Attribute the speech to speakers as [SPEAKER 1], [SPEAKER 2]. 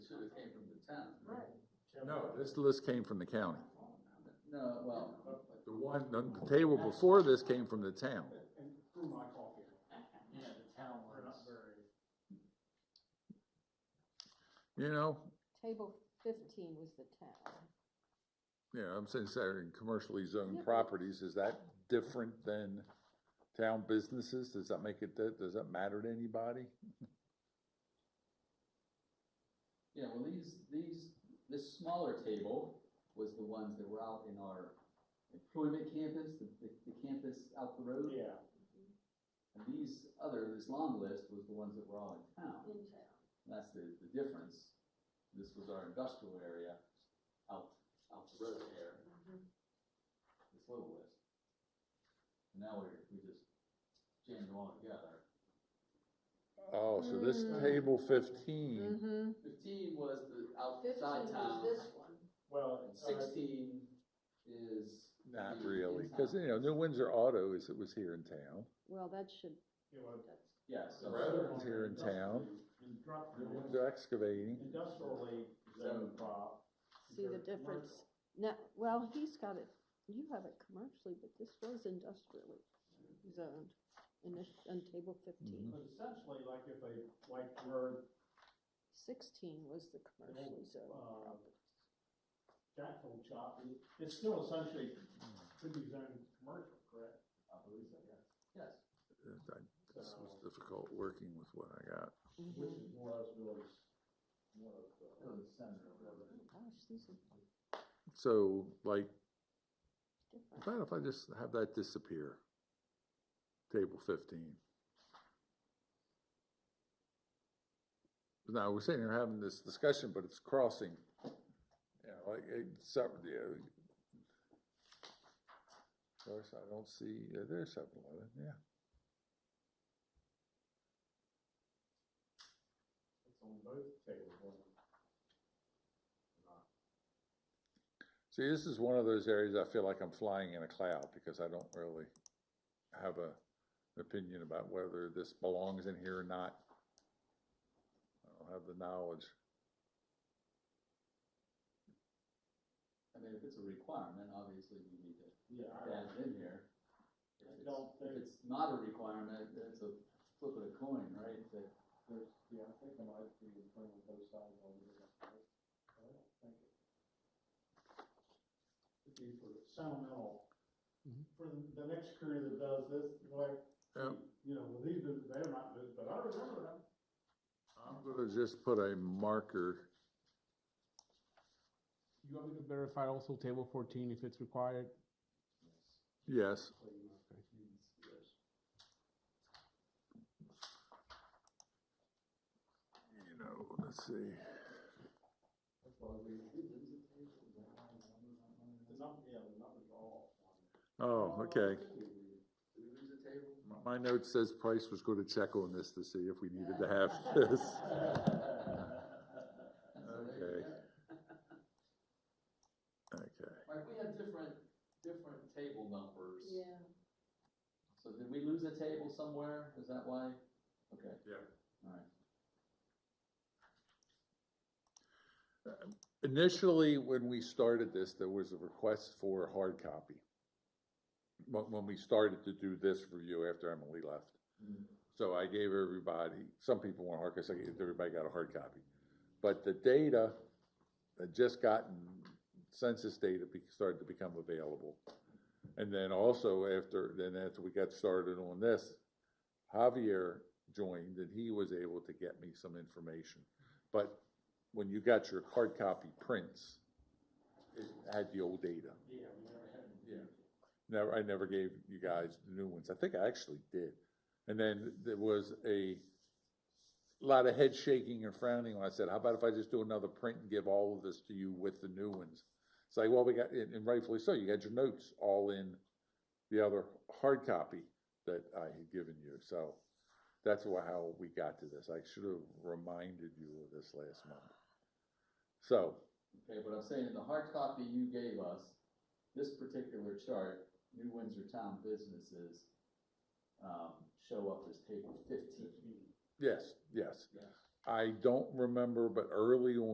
[SPEAKER 1] town.
[SPEAKER 2] Right.
[SPEAKER 3] No, this list came from the county.
[SPEAKER 1] No, well,
[SPEAKER 3] The one, the the table before this came from the town.
[SPEAKER 4] and through my coffee.
[SPEAKER 1] yeah, the town
[SPEAKER 4] We're not very.
[SPEAKER 3] You know,
[SPEAKER 2] Table fifteen was the town.
[SPEAKER 3] yeah, I'm saying, sorry, in commercially
[SPEAKER 2] Yeah.
[SPEAKER 3] zoned properties, is that different than town businesses? Does that make it, that- does that matter to anybody?
[SPEAKER 1] Yeah, well, these, these, this smaller table was the ones that were out in our employment campus, the, the, the campus out the road.
[SPEAKER 4] Yeah,
[SPEAKER 1] And these other, this long list was the ones that were all in town.
[SPEAKER 2] In town.
[SPEAKER 1] That's the, the difference. This was our industrial area out, out the road there, this little list. And now we're, we just jammed them all together.
[SPEAKER 3] Oh, so this
[SPEAKER 4] Mm.
[SPEAKER 3] table fifteen,
[SPEAKER 2] Mm-hmm.
[SPEAKER 1] Fifteen was the outside
[SPEAKER 2] Fifteen
[SPEAKER 1] town.
[SPEAKER 2] was this one.
[SPEAKER 4] well,
[SPEAKER 1] And
[SPEAKER 4] all right.
[SPEAKER 1] sixteen is.
[SPEAKER 4] Mm.
[SPEAKER 3] not
[SPEAKER 1] the
[SPEAKER 3] really,
[SPEAKER 1] in-town.
[SPEAKER 3] cause you know, New Windsor Auto is, it was here in town.
[SPEAKER 2] Well, that should,
[SPEAKER 4] Yeah, well,
[SPEAKER 2] that's,
[SPEAKER 1] Yeah, so.
[SPEAKER 3] Rather- It's here in town. New Windsor
[SPEAKER 4] Industrially,
[SPEAKER 3] Excavating,
[SPEAKER 4] industrially zoned prop.
[SPEAKER 2] see the
[SPEAKER 4] compared to
[SPEAKER 2] difference.
[SPEAKER 4] commercial.
[SPEAKER 2] Now, well, he's got it, you have it commercially, but this was industrially zoned in this, on table
[SPEAKER 3] Mhm.
[SPEAKER 2] fifteen.
[SPEAKER 4] But essentially, like if a, like where
[SPEAKER 2] Sixteen was the commercially zoned
[SPEAKER 4] uh,
[SPEAKER 2] property.
[SPEAKER 4] Jackson shop, it- it's still essentially could be zoned commercial, correct?
[SPEAKER 1] I believe so, yes. Yes.
[SPEAKER 3] Uh, I- this was
[SPEAKER 4] So,
[SPEAKER 3] difficult working with what I got.
[SPEAKER 4] which
[SPEAKER 2] Mhm.
[SPEAKER 4] is more or less really, s- more of
[SPEAKER 1] It
[SPEAKER 4] the.
[SPEAKER 1] was the center of it.
[SPEAKER 2] Gosh, these are
[SPEAKER 3] So like,
[SPEAKER 2] different.
[SPEAKER 3] How about if I just have that disappear? Table fifteen. Now, we're sitting here having this discussion, but it's crossing. Yeah, like, it's, up- yeah. Of course, I don't see, yeah, there's seven eleven, yeah.
[SPEAKER 4] It's on both tables, wasn't it?
[SPEAKER 3] See, this is one of those areas I feel like I'm flying in a cloud because I don't really have a, an opinion about whether this belongs in here or not. I don't have the knowledge.
[SPEAKER 1] I mean, if it's a requirement, obviously we need to
[SPEAKER 4] Yeah, I-
[SPEAKER 1] add it in here. If
[SPEAKER 4] I
[SPEAKER 1] it's-
[SPEAKER 4] don't
[SPEAKER 1] If
[SPEAKER 4] think-
[SPEAKER 1] it's not a requirement, then it's a flip of a coin, right? That-
[SPEAKER 4] There's, yeah, I think I might be playing with both sides on the other side. I don't think it. It'd be for sentimental, for the, the next crew that does this, like,
[SPEAKER 3] Yep.
[SPEAKER 4] you know, well, these, are- they're not good, but I remember them.
[SPEAKER 3] I'm gonna just put a marker,
[SPEAKER 5] You want me to verify also table fourteen if it's required?
[SPEAKER 3] yes,
[SPEAKER 4] Please, please, yes.
[SPEAKER 3] you know, let's see.
[SPEAKER 4] That's why we. The number, yeah, the numbers are all on there.
[SPEAKER 3] Oh, okay.
[SPEAKER 1] Did we lose a table?
[SPEAKER 3] My note says Price was gonna check on this to see if we needed to have this.
[SPEAKER 1] So there you
[SPEAKER 3] Okay.
[SPEAKER 1] go.
[SPEAKER 3] Okay,
[SPEAKER 1] Like, we had different, different table numbers. So did we lose a table somewhere? Is that why? Okay.
[SPEAKER 3] Yeah.
[SPEAKER 1] All right.
[SPEAKER 3] initially, when we started this, there was a request for a hard copy. When, when we started to do this review after Emily left.
[SPEAKER 1] Mm.
[SPEAKER 3] So I gave everybody, some people want hard, cause I gave, everybody got a hard copy. But the data had just gotten, census data be- started to become available. And then also after, then after we got started on this, Javier joined and he was able to get me some information. But when you got your hard copy prints, it had the old data.
[SPEAKER 4] Yeah, we never had. them.
[SPEAKER 3] Yeah. Never, I never gave you guys the new ones. I think I actually did. And then there was a lot of head shaking and frowning when I said, how about if I just do another print and give all of this to you with the new ones? It's like, well, we got, and and rightfully so, you got your notes all in the other hard copy that I had given you. So that's why, how we got to this. I should have reminded you of this last month. So,
[SPEAKER 1] Okay, but I'm saying in the hard copy you gave us, this particular chart, New Windsor Town businesses, um, show up as table fifteen.
[SPEAKER 4] Fifteen.
[SPEAKER 3] yes, yes.
[SPEAKER 1] Yeah.
[SPEAKER 3] I don't remember, but early on.